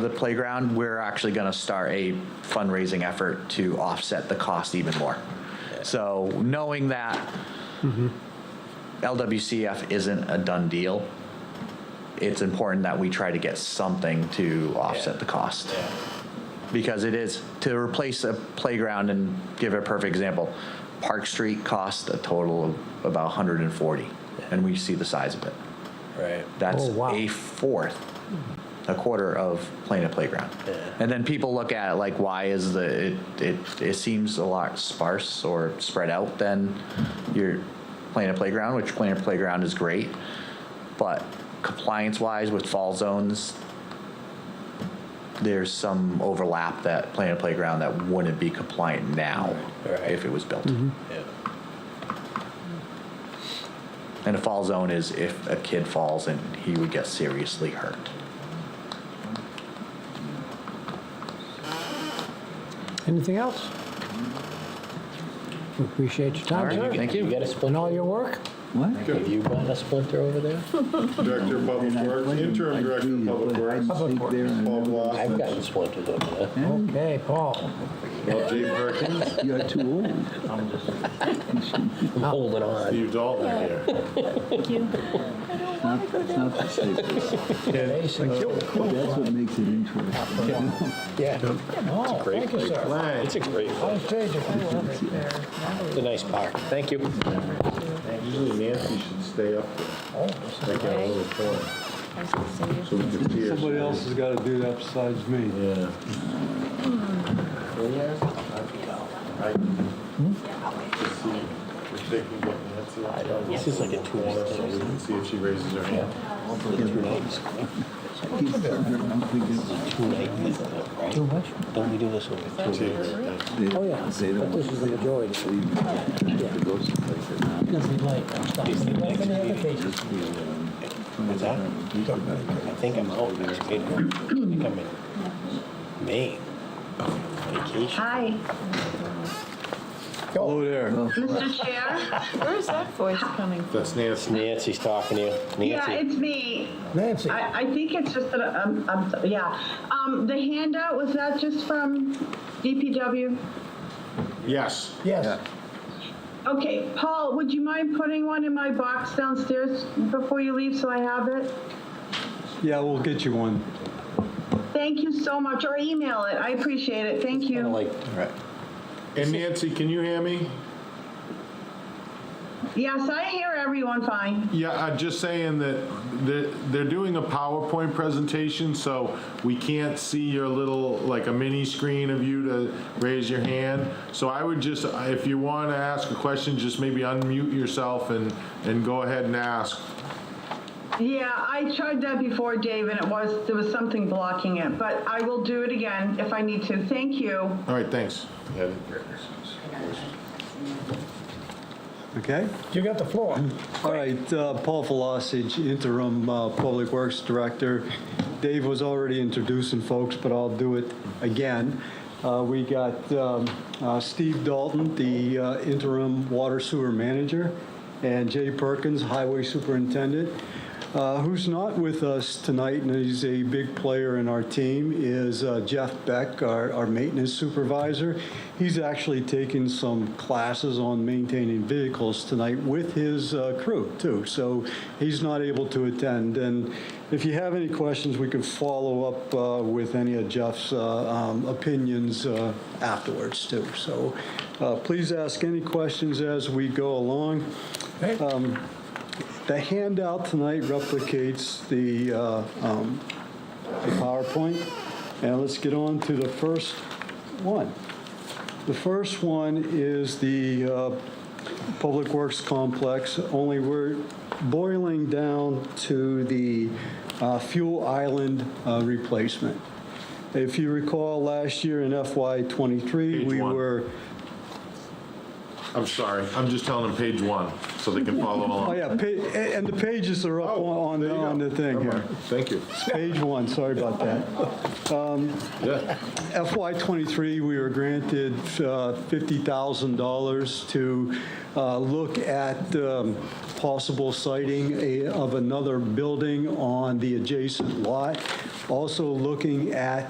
the playground, we're actually going to start a fundraising effort to offset the cost even more. So knowing that LWCF isn't a done deal, it's important that we try to get something to offset the cost. Because it is, to replace a playground and give a perfect example, Park Street cost a total of about 140, and we see the size of it. Right. That's Oh, wow. a fourth, a quarter of playing a playground. Yeah. And then people look at it like, why is the it, it it seems a lot sparse or spread out than your playing a playground, which playing a playground is great, but compliance wise with fall zones. There's some overlap that playing a playground that wouldn't be compliant now Right. Mm-hmm. if it was built. Yeah. And a fall zone is if a kid falls and he would get seriously hurt. Anything else? We Appreciate your time, All right, sir. thank you. You got a And splinter? all your work. Have you got a splinter over there? Director of Public Works, interim director of Public Works, Paul I've Bloss, gotten splinters over there. Okay, Paul. Well, Jay Perkins, You're too old. I'm holding on. Steve Dalton are here. It's not, it's not the safest. Thank That's what makes it interesting. Yeah. Oh, thank you, sir. It's a great one. I stayed at It's a nice park. Thank you. Usually Nancy should stay up there, like a little corner, so we can see her. Somebody else has got to do that besides me. Yeah. This is like a two-hour thing. See if she raises her hand. Two-night visit, right? Too much? Don't we do this over two nights? Oh, yeah. They don't But this is the majority. leave to go someplace they're not. Because we like. Like in the other cases. What's that? I think I'm out next April. I think I'm in Maine. Vacation. Hi, Hello there. Mr. Chair. Where is that voice coming from? That's Nancy. Nancy's talking to you. Yeah, Nancy. it's me. Nancy. I, I think it's just that, um, I'm, so- yeah. Um, the handout, was that just from DPW? Yes. Yes. Okay, Paul, would you mind putting one in my box downstairs before you leave so I have it? Yeah, we'll get you one. Thank you so much, or email it. I appreciate it. Thank Kinda you. like, And Nancy, can you hear me? Yes, I hear everyone fine. Yeah, I'm just saying that they're, they're doing a PowerPoint presentation, so we can't see your little, like a mini screen of you to raise your hand. So I would just, if you want to ask a question, just maybe unmute yourself and, and go ahead and ask. Yeah, I tried that before, Dave, and it was, there was something blocking it, but I will do it again if I need to. Thank you. All right, thanks. Okay? You got the floor. All right, uh, Paul Velocich, interim uh, Public Works Director. Dave was already introducing folks, but I'll do it again. Uh, We got um, uh, Steve Dalton, the uh, interim Water Sewer Manager, and Jay Perkins, Highway Superintendent. Uh, Who's not with us tonight, and he's a big player in our team, is uh, Jeff Beck, our our Maintenance Supervisor. He's actually taking some classes on maintaining vehicles tonight with his uh, crew, too, so he's not able to attend. And if you have any questions, we could follow up uh, with any of Jeff's uh, um, opinions uh, afterwards, too. So uh, please ask any questions as we go along. Um, The handout tonight replicates the uh, um, the PowerPoint, and let's get on to the first one. The first one is the uh, Public Works Complex, only we're boiling down to the uh, fuel island uh, replacement. If you recall, last year in FY '23, Page we one. were, I'm sorry, I'm just telling them page one, so they can follow oh along. Oh, yeah, pa- a- and the pages are up on, there on you go. on the thing Never here. mind. Thank you. It's Page one, sorry about that. Yeah. FY '23, we were granted uh, $50,000 to uh, look at um, possible siting a- of another building on the adjacent lot. Also looking at